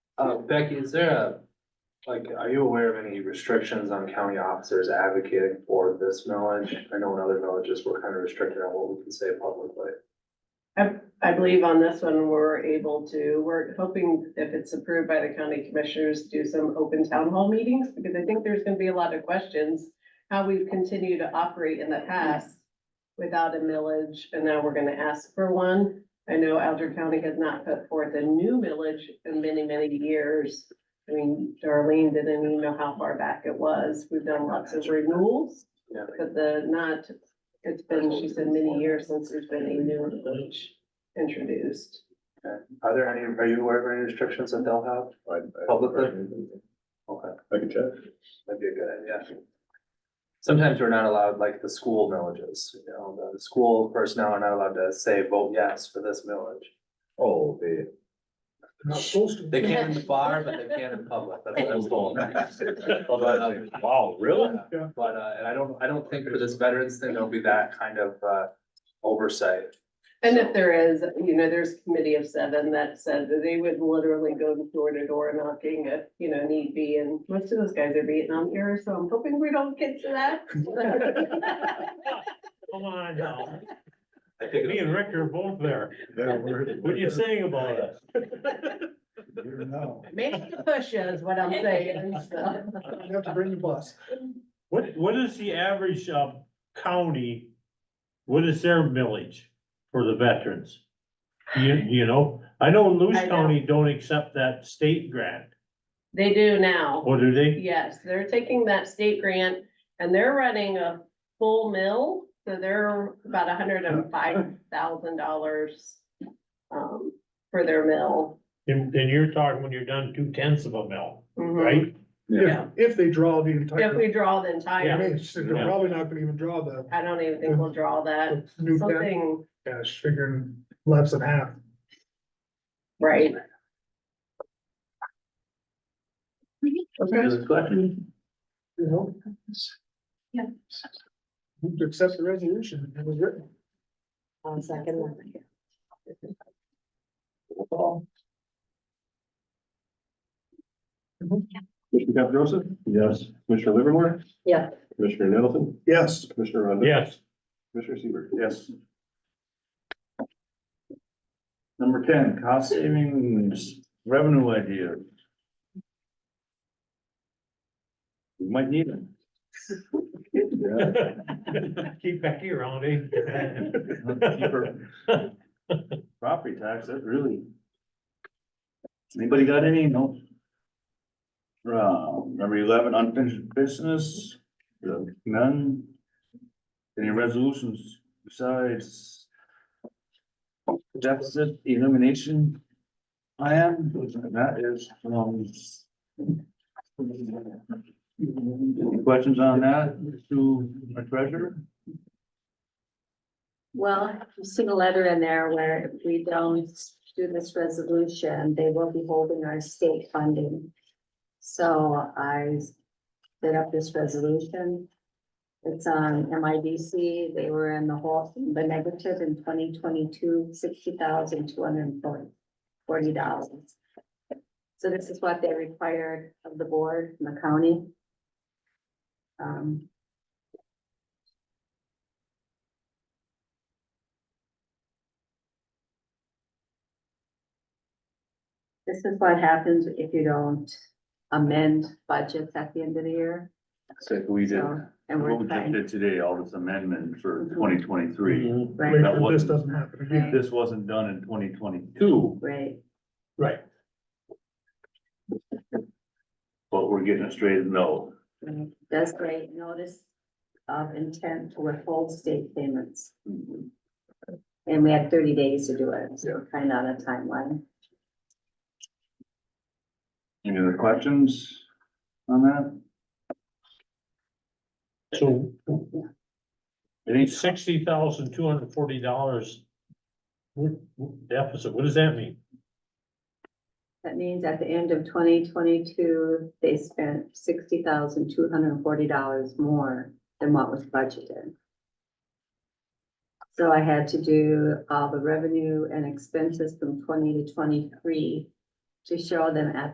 Uh, Becky, is there a, like, are you aware of any restrictions on county officers advocating for this millage? I know in other villages, we're kind of restricted on what we can say publicly. I believe on this one, we're able to, we're hoping if it's approved by the county commissioners, do some open town hall meetings, because I think there's gonna be a lot of questions. How we've continued to operate in the past without a millage, and now we're gonna ask for one. I know Alger County has not put forth a new millage in many, many years. I mean, Darlene didn't even know how far back it was. We've done lots of renewals, Yeah. but the not, it's been, she said, many years since there's been a new millage introduced. Are there any, are you aware of any restrictions that they'll have? I- I- Publicly? Okay, I can check. that'd be a good idea. Sometimes we're not allowed, like the school villages, you know, the- the school personnel are not allowed to say, vote yes for this village. Oh, they. Not supposed to. They can in the bar, but they can't in public, that's what I was told. Wow, really? Yeah, But, uh, and I don't, I don't think for this veterans thing, there'll be that kind of, uh, oversight. And if there is, you know, there's a committee of seven that said that they would literally go door to door knocking if, you know, need be, and most of those guys are Vietnam era, so I'm hoping we don't get to that. Come on now, I think me and Rick are both there, what are you saying about us? Make the push is what I'm saying, so. You have to bring the bus. What, what is the average, um, county, what is their millage for the veterans? You, you know, I know I Lewis know. County don't accept that state grant, They do now. or do they? Yes, they're taking that state grant and they're running a full mill, so they're about hundred and five thousand dollars. Um, for their mill. And, and you're talking when you're done two tenths of a mill, Mhm. right? Yeah. If they draw the If entire, we draw the I entire, mean, it's- they're probably not gonna even draw the I don't even think we'll draw that, the new debt something, cash, figuring less than half. right? Okay, you know? Yeah. Move To accept the resolution, it was written. On second. Mm-hmm. Commissioner Caprosa? Yes. Commissioner Livermore? Yeah. Commissioner Nettleton? Yes, Commissioner Rondo? Yes, Commissioner Seaver? Yes. Number ten, cost savings revenue idea. We might need it. Yeah. keep Becky around, eh? Cheaper. Property tax, that really. Anybody got any? No? Uh, number eleven, unfinished business, Uh, none. Any resolutions besides? Deficit elimination. plan? that is from. Any questions on that to my treasurer? Well, I've seen a letter in there where if we don't do this resolution, they will be holding our state funding. So I set up this resolution. It's on MIDC. They were in the whole, the negative in twenty twenty-two, sixty thousand, two hundred and forty, forty dollars. So this is what they required of the board and the county. Um, This is what happens if you don't amend budgets at the end of the year. So we did. So, And What we're Mhm. we just trying, did today, all this amendment for twenty Mhm. twenty-three, right, That Wait, this wasn't- doesn't happen again. this wasn't done in twenty twenty-two, right, right. but we're getting it straightened out. right. Does create notice of intent to withhold state payments. And we had thirty days to do it, so kind of on a timeline. Any other questions on that? So Any, sixty thousand two hundred and forty dollars. Deficit, what does that mean? That means at the end of twenty twenty-two, they spent sixty thousand two hundred and forty dollars more than what was budgeted. So I had to do all the revenue and expenses from twenty to twenty-three to show them at